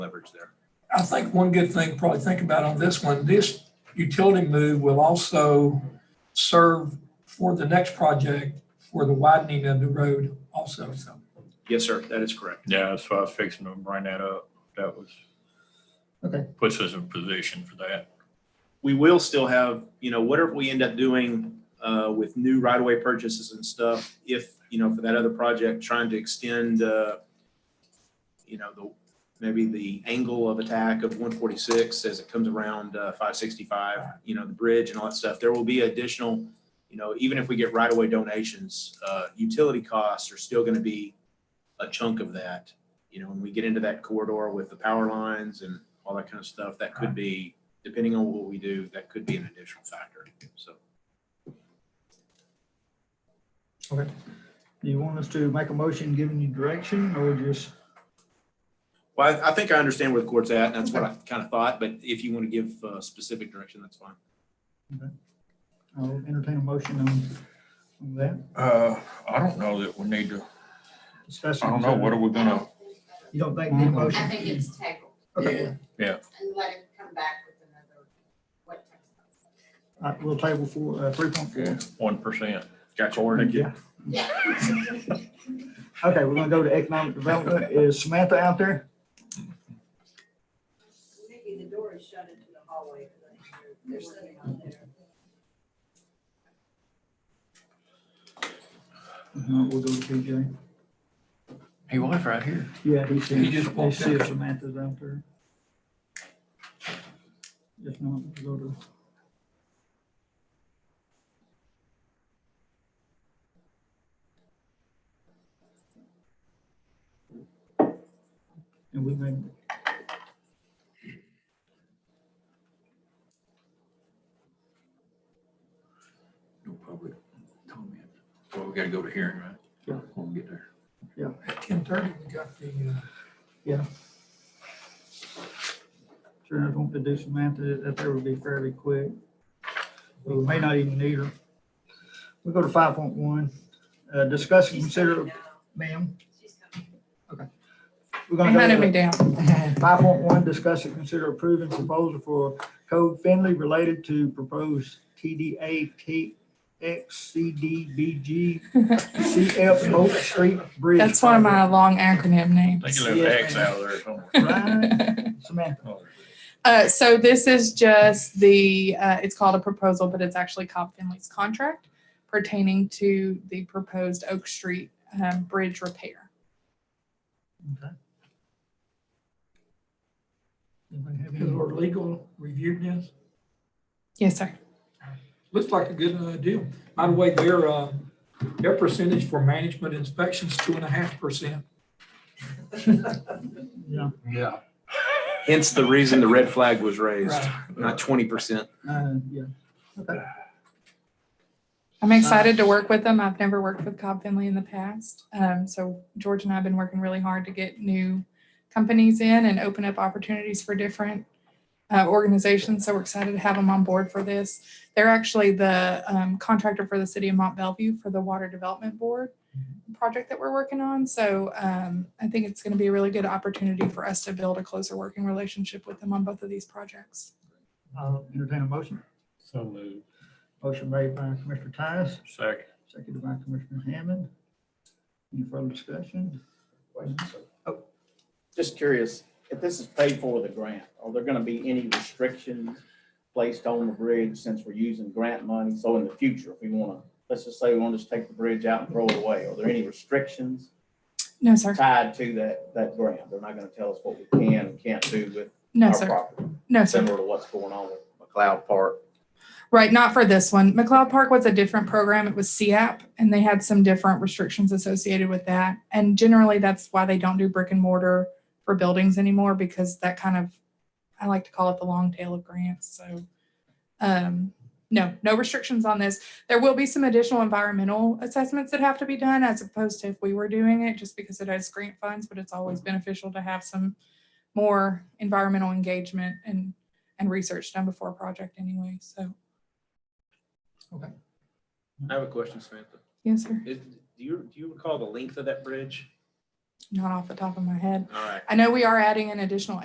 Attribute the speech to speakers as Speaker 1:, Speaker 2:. Speaker 1: leverage there.
Speaker 2: I think one good thing to probably think about on this one, this utility move will also serve for the next project for the widening of the road also, so.
Speaker 1: Yes, sir, that is correct.
Speaker 3: Yeah, that's why I was fixing to bring that up. That was.
Speaker 2: Okay.
Speaker 3: Puts us in position for that.
Speaker 1: We will still have, you know, whatever we end up doing uh, with new right-of-way purchases and stuff, if, you know, for that other project, trying to extend, uh, you know, the, maybe the angle of attack of 146 as it comes around uh, 565, you know, the bridge and all that stuff, there will be additional, you know, even if we get right-of-way donations, uh, utility costs are still going to be a chunk of that. You know, when we get into that corridor with the power lines and all that kind of stuff, that could be, depending on what we do, that could be an additional factor. So
Speaker 4: Do you want us to make a motion giving you direction or just,
Speaker 1: Well, I, I think I understand where the court's at, and that's what I kind of thought, but if you want to give uh, specific direction, that's fine.
Speaker 4: I'll uh, entertain a motion on, on that
Speaker 3: Uh, I don't know that we need to,
Speaker 4: discussion?
Speaker 3: I don't know, what are we gonna,
Speaker 4: You don't think the
Speaker 5: I
Speaker 4: motion?
Speaker 5: think it's tabled
Speaker 4: Okay,
Speaker 5: and let it come back with another, what type of.
Speaker 4: all right, we'll table for, uh, three point four.
Speaker 3: one percent?
Speaker 1: Gotcha.
Speaker 4: Yeah.
Speaker 5: Yeah.
Speaker 4: Okay, we're gonna go to economic development. Is Samantha out there?
Speaker 6: Nikki, the door is shut into the hallway. They're sitting out there.
Speaker 4: No, we'll go to PJ.
Speaker 7: He was right here.
Speaker 4: Yeah, he said,
Speaker 2: He just
Speaker 4: he
Speaker 2: walked
Speaker 4: said
Speaker 2: out.
Speaker 4: Samantha's out there. If not, we'll go to. And we may
Speaker 7: No public comment. Well, we gotta go to hearing, right?
Speaker 4: Yeah.
Speaker 7: We'll get there.
Speaker 2: At ten thirty, we got the, uh,
Speaker 4: Sure, if I want to do Samantha, that there would be fairly quick. We may not even need her. We go to five point one, uh, discuss and
Speaker 6: She's
Speaker 4: consider,
Speaker 6: coming now.
Speaker 4: ma'am,
Speaker 6: She's coming.
Speaker 4: we're
Speaker 8: They
Speaker 4: gonna
Speaker 8: hunted
Speaker 4: go
Speaker 8: me
Speaker 4: to
Speaker 8: down.
Speaker 4: five point one, discuss and consider approving proposal for Code Finley related to proposed TDA TXCDBG CF Oak Street Bridge.
Speaker 8: That's one of my long acronym
Speaker 3: I think
Speaker 8: names.
Speaker 3: you left X out of there somewhere.
Speaker 4: Right. Samantha,
Speaker 8: Uh, so this is just the, uh, it's called a proposal, but it's actually Cobb Finley's contract pertaining to the proposed Oak Street, um, bridge repair.
Speaker 4: anybody have
Speaker 2: has
Speaker 4: any-
Speaker 2: our legal review this.
Speaker 8: Yes, sir.
Speaker 2: Looks like a good uh, deal. By the way, their, uh, their percentage for management inspections, two and a half percent.
Speaker 4: yeah,
Speaker 7: Yeah.
Speaker 1: Hence the reason the red flag was raised,
Speaker 2: Right.
Speaker 1: not twenty percent.
Speaker 4: uh, yeah, okay,
Speaker 8: I'm excited to work with them. I've never worked with Cobb Finley in the past. Um, so George and I have been working really hard to get new companies in and open up opportunities for different uh, organizations. So we're excited to have them on board for this. They're actually the um, contractor for the city of Mont Bellevue for the Water Development Board project that we're working on. So um, I think it's going to be a really good opportunity for us to build a closer working relationship with them on both of these projects.
Speaker 4: I'll entertain a motion.
Speaker 3: So moved.
Speaker 4: Motion made by Commissioner Tice,
Speaker 3: Second.
Speaker 4: seconded by Commissioner Hammond. Any further discussion?
Speaker 9: Just curious, if this is paid for with a grant, are there gonna be any restrictions placed on the bridge since we're using grant money? So in the future, if we wanna, let's just say we wanna just take the bridge out and throw it away, are there any restrictions
Speaker 8: No, sir.
Speaker 9: tied to that, that grant? They're not gonna tell us what we can and can't do with
Speaker 8: No,
Speaker 9: our
Speaker 8: sir.
Speaker 9: property,
Speaker 8: No, sir.
Speaker 9: similar to what's going on with McLeod Park.
Speaker 8: Right, not for this one. McLeod Park was a different program. It was CAP, and they had some different restrictions associated with that. And generally, that's why they don't do brick and mortar for buildings anymore because that kind of, I like to call it the long tail of grants. So, um, no, no restrictions on this. There will be some additional environmental assessments that have to be done as opposed to if we were doing it, just because it has grant funds. But it's always beneficial to have some more environmental engagement and and research done before a project anyway. So.
Speaker 1: I have a question, Samantha.
Speaker 8: Yes, sir.
Speaker 1: Is- Do you, do you recall the length of that bridge?
Speaker 8: Not off the top of my head.
Speaker 1: All right.
Speaker 8: I know we are adding an additional